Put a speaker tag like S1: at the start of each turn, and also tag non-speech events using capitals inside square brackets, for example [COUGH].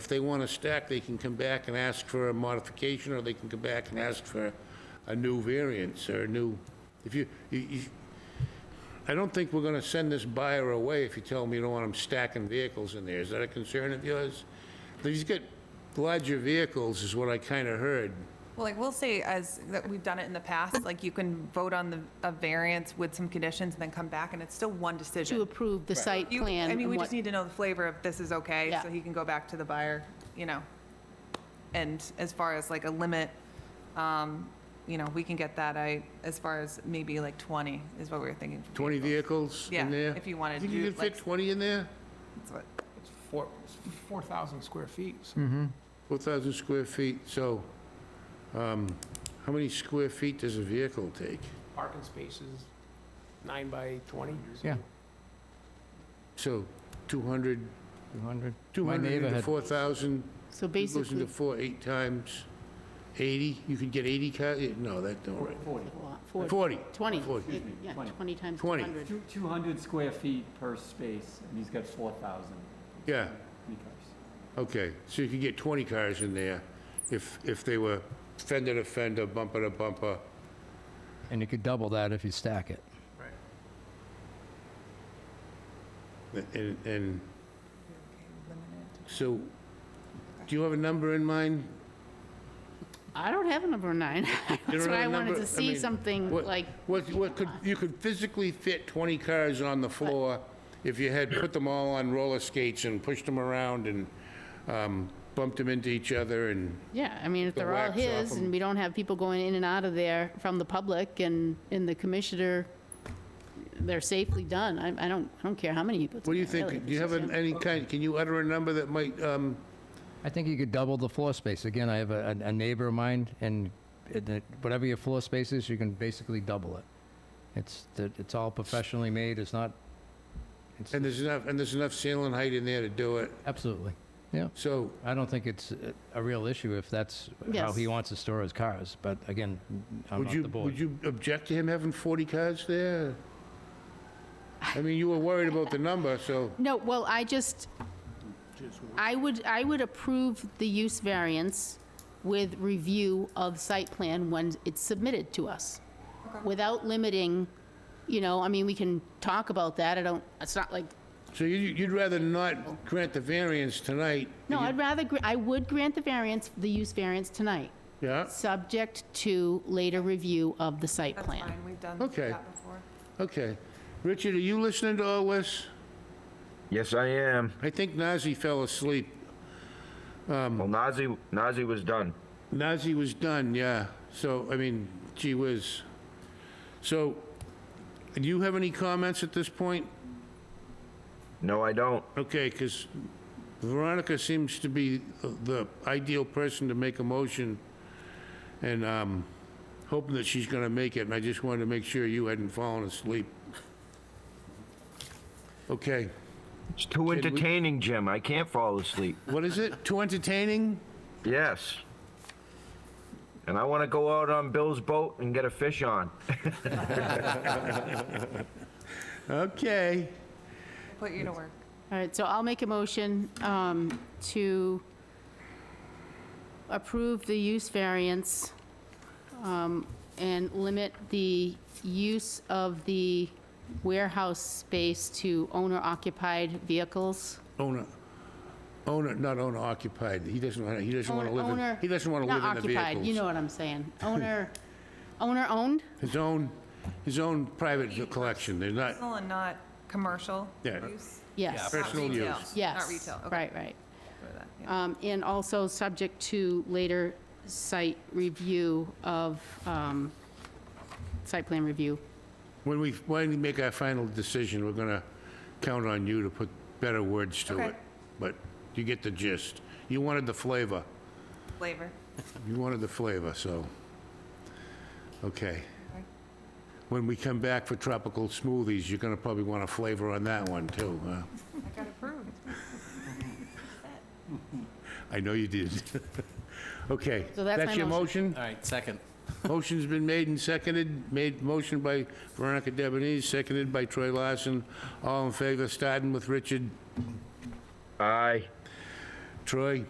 S1: If they want to stack, they can come back and ask for a modification, or they can come back and ask for a new variance or a new, if you, you, you- I don't think we're going to send this buyer away if you tell him you don't want him stacking vehicles in there. Is that a concern of yours? He's got larger vehicles, is what I kind of heard.
S2: Well, like, we'll say as, that we've done it in the past, like, you can vote on the, a variance with some conditions and then come back, and it's still one decision.
S3: to approve the site
S2: You-
S3: plan.
S2: I mean,
S3: and
S2: we
S3: what-
S2: just need to know the flavor of this is okay,
S3: Yeah.
S2: so he can go back to the buyer, you know. And as far as like a limit, um, you know, we can get that, I, as far as maybe like 20 is what we were thinking. for
S1: 20 vehicles
S2: vehicles. Yeah,
S1: in there?
S2: if you wanted to
S1: Think you
S2: do,
S1: could fit
S2: like-
S1: 20 in there?
S2: That's what-
S4: It's four, it's 4,000 square feet, so
S1: 4,000 square feet, so um, how many square feet does a vehicle take?
S4: parking spaces, nine by 20.
S5: Yeah.
S1: So 200,
S5: 200.
S1: 200 into
S5: neighborhood.
S1: 4,000,
S3: So
S1: goes into
S3: basically,
S1: 4, 8 times 80, you could get 80 car, eh, no, that don't, right.
S3: Forty.
S1: 40,
S3: 20,
S1: 40.
S3: It- yeah, 20 times
S1: 20.
S3: 100.
S6: Two- 200 square feet per space, and he's got 4,000
S1: yeah,
S6: meters.
S1: okay. So you could get 20 cars in there if, if they were fender to fender, bumper to bumper.
S5: And you could double that if you stack it.
S1: And, and, so, do you have a number in mind?
S3: I don't have a number nine. [LAUGHS] That's
S1: don't have
S3: why I
S1: a
S3: wanted
S1: number? I
S3: to see
S1: mean,
S3: something
S1: What-
S3: like,
S1: What, what could, you could physically fit 20 cars on the floor if you had put them all on roller skates and pushed them around and um, bumped them into each other and,
S3: yeah, I mean, if
S1: The
S3: they're all
S1: wax off
S3: his
S1: them.
S3: and we don't have people going in and out of there from the public and, and the commissioner, they're safely done. I, I don't, I don't care how many he puts
S1: what do you
S3: in there, really,
S1: think?
S3: if
S1: Do you
S3: it's
S1: have
S3: just
S1: an-
S3: him.
S1: any kind, can you utter a number that might, um,
S5: I think you could double the floor space. Again, I have a, a neighbor of mine, and it- it- whatever your floor space is, you can basically double it. It's, the- it's all professionally made, it's not, it's,
S1: and there's enough, and there's enough ceiling height in there to do it?
S5: absolutely. Yeah,
S1: So,
S5: I don't think it's uh, a real issue if that's how he
S3: Yes.
S5: wants to store his cars, but again, I'm
S1: would
S5: not
S1: you,
S5: the
S1: would
S5: board.
S1: you object to him having 40 cars there? I mean, you were worried about the number, so,
S3: No, well, I just, I would, I would approve the use variance with review of site plan when it's submitted to us, without limiting, you know, I mean, we can talk about that, I don't, it's not like,
S1: so you- you'd rather not grant the variance tonight?
S3: no, I'd rather, gr- I would grant the variance, the use variance tonight,
S1: Yeah?
S3: subject to later review of the site
S2: That's
S3: plan.
S2: fine, we've done
S1: Okay.
S2: that before.
S1: Okay. Richard, are you listening to all this?
S7: Yes, I am.
S1: I think Nazi fell asleep.
S7: Well, Nazi, Nazi was done.
S1: Nazi was done, yeah. So, I mean, gee whiz. So, do you have any comments at this point?
S7: No, I don't.
S1: Okay, because Veronica seems to be the ideal person to make a motion, and um, hoping that she's going to make it, and I just wanted to make sure you hadn't fallen asleep. Okay.
S7: It's too
S1: we-
S7: entertaining, Jim. I can't fall asleep.
S1: What is it? Too entertaining?
S7: Yes. And I want to go out on Bill's boat and get a fish on.
S1: Okay.
S2: Put you to work.
S3: All right, so I'll make a motion um, to approve the use variance um, and limit the use of the warehouse space to owner-occupied vehicles.
S1: Owner, owner, not owner occupied. He doesn't want to, he doesn't want to live in,
S3: Owner-
S1: he doesn't want to
S3: not
S1: live in the
S3: occupied, You know
S1: vehicles.
S3: what
S1: [LAUGHS]
S3: I'm saying. Owner, owner-owned?
S1: His own, his own private collection. They're not,
S2: Personal and not commercial
S1: Yeah.
S2: use?
S3: Yes,
S1: Yeah. Personal
S2: Not retail.
S1: use.
S3: yes.
S2: Not retail, okay.
S3: Right, right.
S2: for that, yeah.
S3: Um, And also subject to later site review of, um, site plan review.
S1: when we, when we make our final decision, we're going to count on you to put better words to
S2: Okay.
S1: it. But you get the gist. You wanted the flavor.
S2: Flavor.
S1: You wanted the flavor, so, okay. When we come back for tropical smoothies, you're going to probably want a flavor on that one, too, huh?
S2: I got approved.
S1: I know you did. [LAUGHS] Okay.
S3: So that's my
S1: your
S3: motion.
S1: motion?
S8: All right, second.
S1: Motion's been made and seconded, made motion by Veronica Debonese, seconded by Troy Larson. All in favor, starting with Richard.
S7: Aye.
S1: Troy?